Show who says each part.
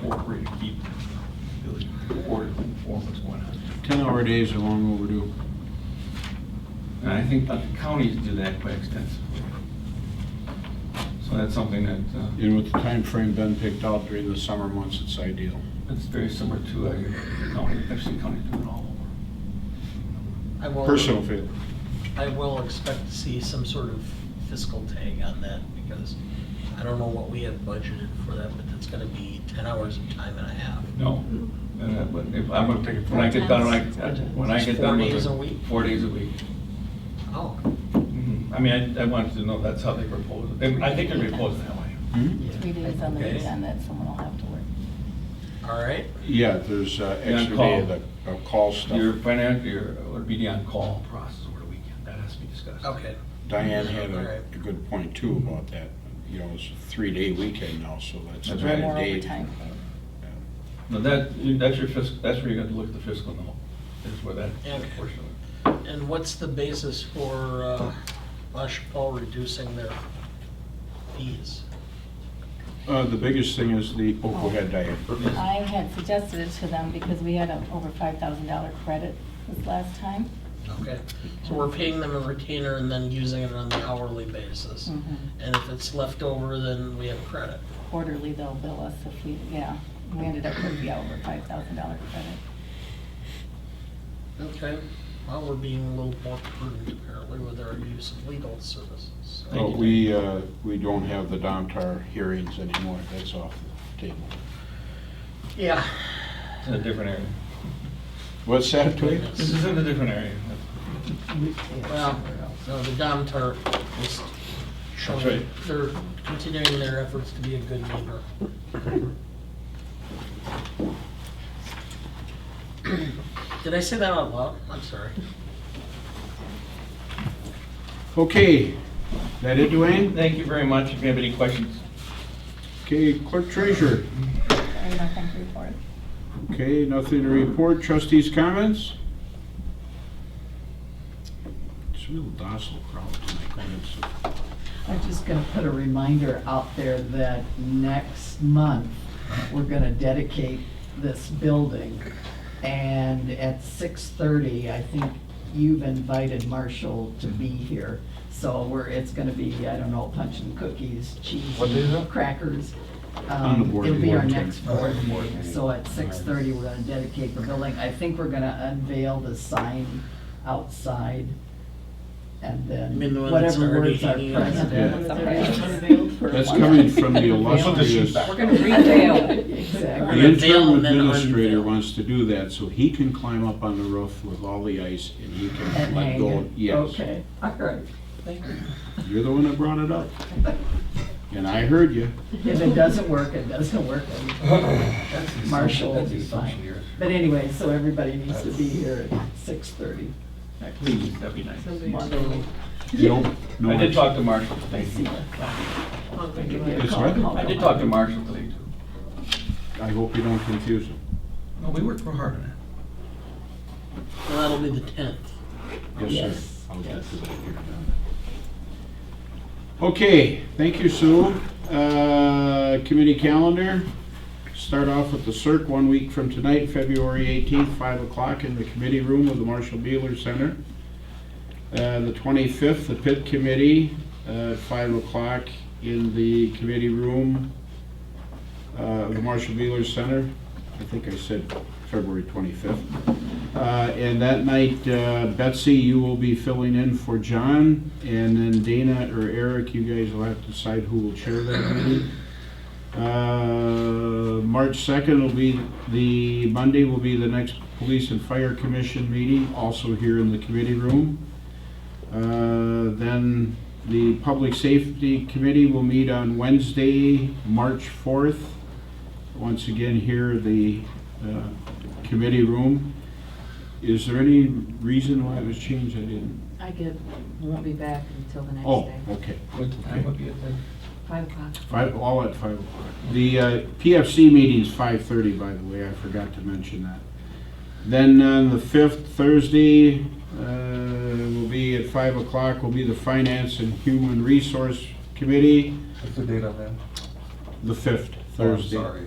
Speaker 1: feel free to keep the board informed what's going on.
Speaker 2: Ten-hour days are long overdue.
Speaker 1: And I think that the counties do that quite extensively. So that's something that, uh,
Speaker 2: And with the time frame Ben picked out during the summer months, it's ideal.
Speaker 1: that's very similar to uh, your county, actually county doing all over.
Speaker 3: I will-
Speaker 2: Personal feeling.
Speaker 3: I will expect to see some sort of fiscal tag on that because I don't know what we have budgeted for that, but that's gonna be ten hours of time and a half.
Speaker 1: No, and that- but if, I'm gonna take it, when I get done, when I, when I get done with it.
Speaker 3: Four days a week?
Speaker 1: Four days a week.
Speaker 3: Oh,
Speaker 1: Mhm. I mean, I, I wanted to know, that's how they propose it. And I think they propose it that way.
Speaker 2: Hmm?
Speaker 4: Three days on the
Speaker 3: Okay.
Speaker 4: weekend that someone will have to work.
Speaker 3: all right.
Speaker 2: Yeah, there's uh,
Speaker 1: Yeah,
Speaker 2: extra
Speaker 1: call.
Speaker 2: day of the of call
Speaker 1: Your
Speaker 2: stuff.
Speaker 1: financial, your, would be the on-call process over the weekend, that has to be discussed.
Speaker 3: Okay.
Speaker 2: Diane had a
Speaker 3: Alright.
Speaker 2: a good point too about that. You know, it's a three-day weekend now, so that's
Speaker 1: That's
Speaker 2: another
Speaker 1: right.
Speaker 4: More
Speaker 2: day.
Speaker 4: overtime.
Speaker 1: No, that, that's your fiscal, that's where you got to look at the fiscal note, is where that that portion of it.
Speaker 3: And what's the basis for uh, La Chapelle reducing their fees?
Speaker 2: Uh, The biggest thing is the Okohead diet.
Speaker 4: I had suggested it to them because we had an over five thousand dollar credit this last time.
Speaker 3: Okay, so we're paying them a retainer and then using it on the hourly basis.
Speaker 4: Mm.
Speaker 5: Mm-hmm.
Speaker 3: And if it's left over, then we have credit.
Speaker 4: Quarterly, they'll bill us if we, yeah, we ended up with the over five thousand dollar credit.
Speaker 3: Okay, well, we're being a little more prudent apparently with our use of legal services. so-
Speaker 1: Thank
Speaker 2: But
Speaker 1: you.
Speaker 2: we, uh, we don't have the Domtar hearings anymore. That's off the table.
Speaker 3: Yeah.
Speaker 1: It's in a different area.
Speaker 2: What's that, Dwayne?
Speaker 1: This is in a different area.
Speaker 3: Well, no, the Dom Tar is
Speaker 1: That's
Speaker 3: showing,
Speaker 1: right.
Speaker 3: they're continuing their efforts to be a good neighbor. Did I say that out loud? I'm sorry.
Speaker 2: Okay, that it, Dwayne?
Speaker 1: Thank you very much. If you have any questions.
Speaker 2: Okay, clerk treasurer.
Speaker 4: Sorry, nothing to report.
Speaker 2: Okay, nothing to report. Trustees' comments? It's a real docile crowd tonight. Go ahead, Sue.
Speaker 6: I'm just gonna put a reminder out there that next month, we're gonna dedicate this building. And at six thirty, I think you've invited Marshall to be here. So we're, it's gonna be, I don't know, punch and cookies, cheese,
Speaker 2: What day is that?
Speaker 6: crackers.
Speaker 2: On the
Speaker 6: Um,
Speaker 2: board
Speaker 6: It'll be our
Speaker 2: meeting.
Speaker 6: next board meeting. So at six thirty, we're gonna dedicate the building. I think we're gonna unveil the sign outside. And
Speaker 3: You mean
Speaker 6: then
Speaker 3: the one that's
Speaker 6: whatever
Speaker 3: already
Speaker 6: words are
Speaker 3: hanging up?
Speaker 6: president.
Speaker 2: That's coming from the illustrious,
Speaker 4: We're gonna reveal.
Speaker 2: the
Speaker 6: Exactly.
Speaker 3: We're gonna veil
Speaker 2: interim
Speaker 3: and then
Speaker 2: administrator
Speaker 3: unveil.
Speaker 2: wants to do that, so he can climb up on the roof with all the ice and he can
Speaker 6: And
Speaker 2: let
Speaker 6: hang
Speaker 2: go.
Speaker 6: it.
Speaker 2: Oh Yes,
Speaker 6: Okay, all right.
Speaker 3: Thank you.
Speaker 2: you're the one that brought it up. And I heard you.
Speaker 6: If it doesn't work, it doesn't work. Marshall will be fine. But anyway, so everybody needs to be here at six thirty.
Speaker 1: Please, that'd be nice.
Speaker 2: You don't know.
Speaker 1: I did
Speaker 2: it.
Speaker 1: talk to Marshall today.
Speaker 2: It's right.
Speaker 1: I did talk to Marshall today too.
Speaker 2: I hope you don't confuse him.
Speaker 1: No, we worked real hard on that.
Speaker 3: Well, that'll be the tenth.
Speaker 2: Yes, sir.
Speaker 6: Yes,
Speaker 2: I'll get
Speaker 6: yes.
Speaker 2: to that here in a minute. Okay, thank you, Sue. Uh, Committee calendar, start off with the CERC one week from tonight, February 18th, 5 o'clock in the committee room of the Marshall Beeler Center. Uh, The 25th, the PIT committee, uh, 5 o'clock in the committee room uh, of the Marshall Beeler Center. I think I said February 25th. Uh, And that night, uh, Betsy, you will be filling in for John, and then Dana or Eric, you guys will have to decide who will chair that meeting. Uh, March 2nd will be, the Monday will be the next Police and Fire Commission meeting, also here in the committee room. Uh, Then the Public Safety Committee will meet on Wednesday, March 4th, once again here, the uh, committee room. Is there any reason why it was changed? I didn't.
Speaker 5: I get, won't be back until the next
Speaker 2: Oh,
Speaker 5: day,
Speaker 2: okay.
Speaker 1: What time would be it then?
Speaker 5: five o'clock.
Speaker 2: Five, all at five o'clock. The uh, PFC meeting's five thirty, by the way. I forgot to mention that. Then on the fifth, Thursday, uh, will be at five o'clock, will be the Finance and Human Resource Committee,
Speaker 1: What's the date on that?
Speaker 2: the fifth, Thursday.
Speaker 1: Sorry.